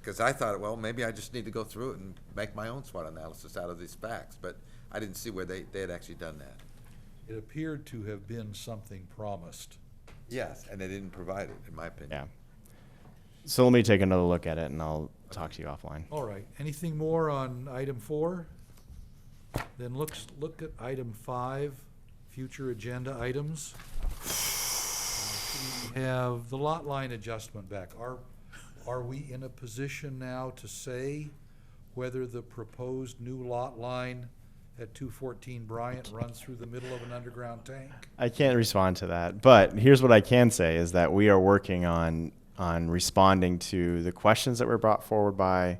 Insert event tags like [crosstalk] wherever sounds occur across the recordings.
Because I thought, well, maybe I just need to go through it and make my own SWOT analysis out of these facts, but I didn't see where they, they had actually done that. It appeared to have been something promised. Yes, and they didn't provide it, in my opinion. Yeah. So let me take another look at it and I'll talk to you offline. All right, anything more on item four? Then looks, look at item five, future agenda items. We Have the lot line adjustment back. Are, are we in a position now to say whether the proposed new lot line at two fourteen Bryant runs through the middle of an underground tank? I can't respond to that, but here's what I can say is that we are working on on responding to the questions that were brought forward by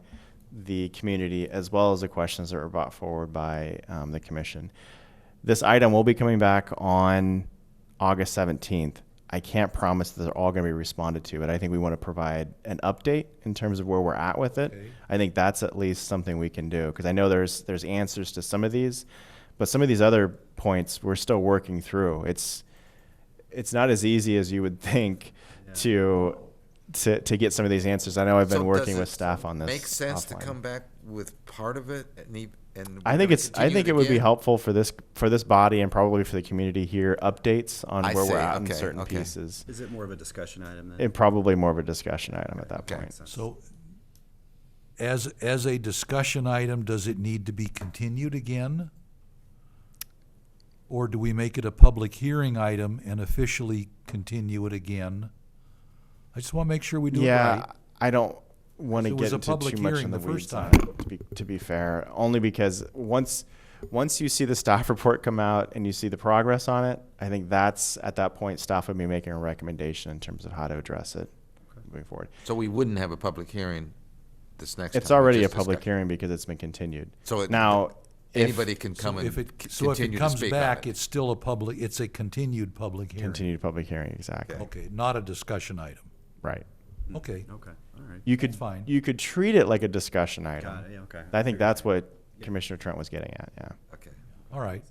the community as well as the questions that were brought forward by um, the commission. This item will be coming back on August 17th. I can't promise that they're all going to be responded to, but I think we want to provide an update in terms of where we're at with it. Okay. I think that's at least something we can do because I know there's there's answers to some of these, but some of these other points we're still working through. It's it's not as easy as you would think to to to get some of these answers. I know I've been So working does with it staff on this. Makes sense to offline. come back with part of it and, e- and. I we're think gonna it's I continue think it would be again? helpful for this for this body and probably for the community here updates on I where see. we're at Okay, in certain okay. pieces. Is it more of a discussion item than? It probably more of a discussion item at that Okay. point. So as, as a discussion item, does it need to be continued again? Or do we make it a public hearing item and officially continue it again? I just want to make sure we do it yeah, right. I don't want to It was get a into public too much hearing in the, the weeds. first on time. it, To be, to be fair, only because once once you see the staff [laughs] report come out and you see the progress on it, I think that's at that point staff would be making a recommendation in terms of how to address it moving forward. So we wouldn't have a public hearing this next time. It's we already a just public discussed- hearing because it's been continued. So it- now if- Anybody can come So and if it, so if it continue to comes speak on back, it. it's still a public, it's a continued public hearing. continued public hearing exactly Okay, not a discussion item. right. Mm. Okay, Okay, all right. You could That's fine. you could treat it like a discussion item. Got it, yeah, okay. I think that's what Commissioner Trent was getting at. Yeah. Okay. all right.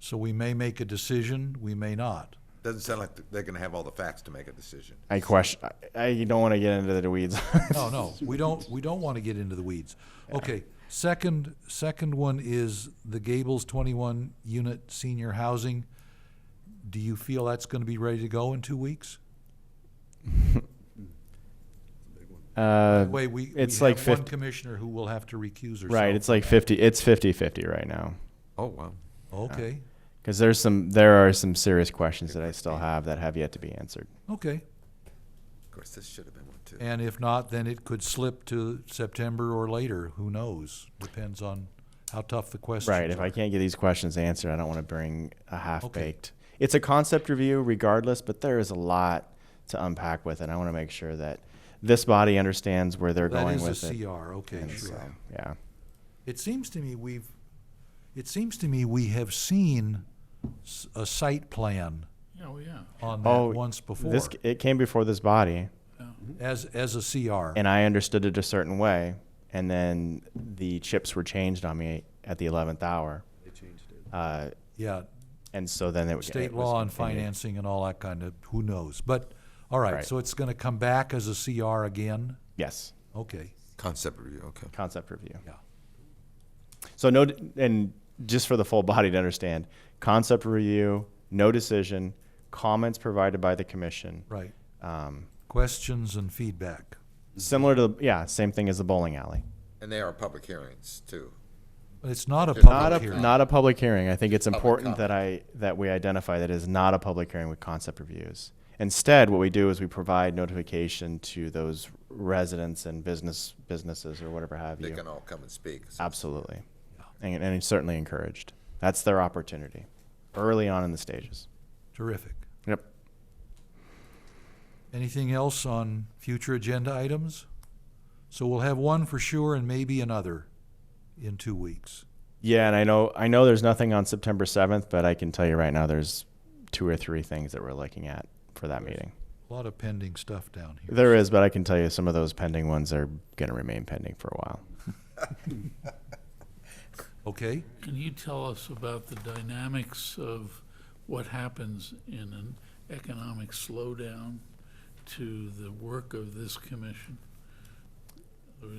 So we may make a decision, we may not. Doesn't sound like they're gonna have all the facts to make a decision. I question. I, I don't want to get into the weeds. No, no, we don't, we don't want to get into the weeds. Okay, second, second one is the Gables twenty-one unit senior housing. Do you feel that's going to be ready to go in two weeks? [laughs] Uh, Wait, we, we it's like have one 50 commissioner who will have to recuse herself. right. It's like fifty. It's 50-50 right now Oh, wow. uh. Okay, because there's some. There are some serious questions that I still have that have yet to be answered. okay. Of course, this should have been one too. And if not, then it could slip to September or later, who knows? Depends on how tough the questions Right. If are. I can't get these questions answered, I don't want to bring a half baked. It's a concept review, regardless, but there is a lot to unpack with it. I want to make sure that this body understands where they're That going is with a it. CR, okay, And so, sure. yeah. It seems to me we've, it seems to me we have seen s- a site plan Oh, yeah. on Oh, that once before, This it came before this body, as, as a CR. and I understood it a certain way, and then the chips were changed on me at the eleventh hour. They changed it. Uh, Yeah, and so then it was state it was law and continued. financing and all that kind of, who knows? But, all right, Right. so it's gonna come back as a CR again? Yes, Okay, Concept review, okay. concept review. yeah. So no, and just for the full body to understand, concept review, no decision, comments provided by the commission. Right. Um, Questions and feedback. similar to yeah, same thing as the bowling alley. And they are public hearings too. But it's not a There's Not public a, hearing. not a public hearing. I think it's important comment. that I that we identify that it is not a public hearing with concept reviews. Instead, what we do is we provide notification to those residents and business businesses or whatever have They you. can all come and speak. Absolutely, and, and it's certainly encouraged. That's their opportunity, early on in the stages. Terrific. Yep. Anything else on future agenda items? So we'll have one for sure and maybe another in two weeks. Yeah, and I know I know there's nothing on September 7th, but I can tell you right now there's two or three things that we're looking at for that meeting. A lot of pending stuff down here. There is, but I can tell you some of those pending ones are going to remain pending for a while. Okay, Can you tell us about the dynamics of what happens in an economic slowdown to the work of this commission?